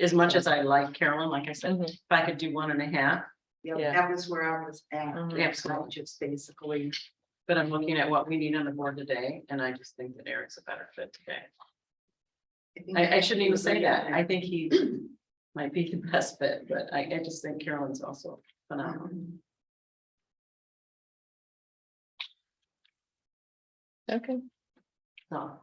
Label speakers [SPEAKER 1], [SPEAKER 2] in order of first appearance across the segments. [SPEAKER 1] as much as I like Carolyn, like I said,
[SPEAKER 2] Mhm.
[SPEAKER 1] if I could do one and a half,
[SPEAKER 2] Yeah.
[SPEAKER 3] Yeah, that was where I was at.
[SPEAKER 1] Mm-hmm.
[SPEAKER 2] Mhm.
[SPEAKER 3] So
[SPEAKER 1] absolutely.
[SPEAKER 3] Just basically,
[SPEAKER 1] But I'm looking at what we need on the board today, and I just think that Eric's a better fit today.
[SPEAKER 3] think
[SPEAKER 1] I, I shouldn't even say that. I
[SPEAKER 3] I-
[SPEAKER 1] think he might be the best fit, but I, I just think Carolyn's also phenomenal.
[SPEAKER 3] um,
[SPEAKER 2] Okay,
[SPEAKER 1] So,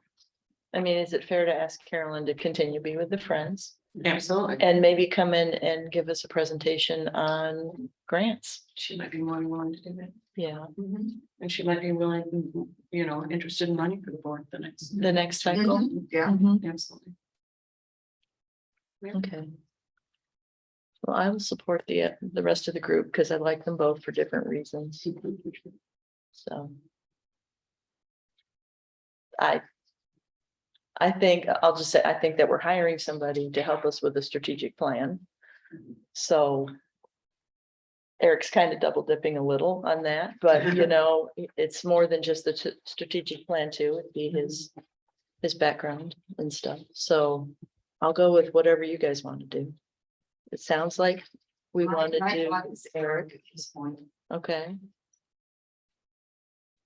[SPEAKER 2] I mean, is it fair to ask Carolyn to continue to be with the Friends
[SPEAKER 1] absolutely.
[SPEAKER 2] and maybe come in and give us a presentation on grants?
[SPEAKER 1] She might be more than willing to do that.
[SPEAKER 2] Yeah,
[SPEAKER 1] And she might be willing, you know, interested in running for the board the next.
[SPEAKER 2] the next cycle.
[SPEAKER 4] Mm-hmm.
[SPEAKER 3] Yeah,
[SPEAKER 2] Mhm.
[SPEAKER 1] Absolutely.
[SPEAKER 2] Okay. Well, I will support the, uh, the rest of the group because I like them both for different reasons, so. I. I think, I'll just say, I think that we're hiring somebody to help us with the strategic plan. So. Eric's kind of double dipping a little on that, but you know, i- it's more than just the t- strategic plan too, it'd be his. His background and stuff, so I'll go with whatever you guys want to do. It sounds like we
[SPEAKER 3] My-
[SPEAKER 2] want to
[SPEAKER 3] my
[SPEAKER 2] do,
[SPEAKER 3] thought is Eric at this point.
[SPEAKER 2] okay,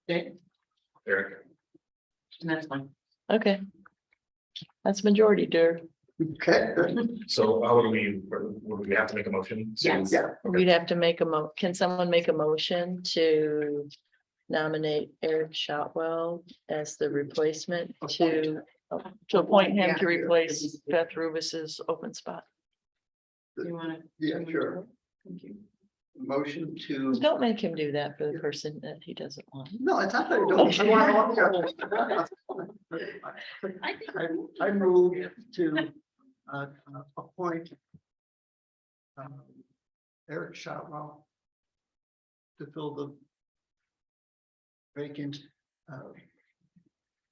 [SPEAKER 1] Okay,
[SPEAKER 5] Eric,
[SPEAKER 1] and that's fine.
[SPEAKER 2] okay. That's majority, dear.
[SPEAKER 4] Okay, good.
[SPEAKER 5] so how would we, would we have to make a motion? to-
[SPEAKER 1] Yes.
[SPEAKER 4] yeah,
[SPEAKER 5] Okay.
[SPEAKER 2] We'd have to make a mo, can someone make a motion to nominate Eric Shotwell as the replacement to? Oh, To appoint him to
[SPEAKER 3] Yeah.
[SPEAKER 2] replace Beth Rubus's open spot.
[SPEAKER 1] You wanna?
[SPEAKER 4] yeah, sure.
[SPEAKER 1] Thank you.
[SPEAKER 4] Motion to,
[SPEAKER 2] Don't make him do that for the person that he doesn't want.
[SPEAKER 4] no, it's not that I don't. I wanna- Oh, I- I move to uh, uh, appoint um, Eric Shotwell to fill the vacant uh,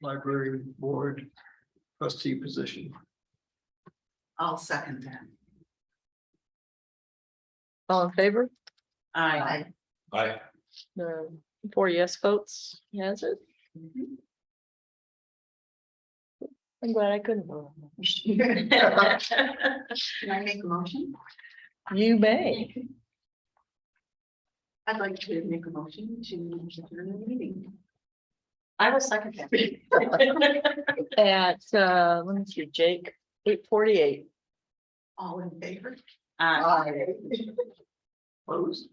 [SPEAKER 4] library board trustee position.
[SPEAKER 3] I'll second that.
[SPEAKER 2] All in favor?
[SPEAKER 1] Aye.
[SPEAKER 3] I-
[SPEAKER 5] Aye.
[SPEAKER 2] The four yes votes, has it? I'm glad I couldn't. vote.
[SPEAKER 3] Can I make a motion?
[SPEAKER 2] You may.
[SPEAKER 3] I'd like to make a motion to adjourn the meeting.
[SPEAKER 1] I will second that.
[SPEAKER 2] At, uh, let me see, Jake, eight forty-eight.
[SPEAKER 3] All in favor?
[SPEAKER 1] Aye.
[SPEAKER 3] Aye.
[SPEAKER 4] Opposed?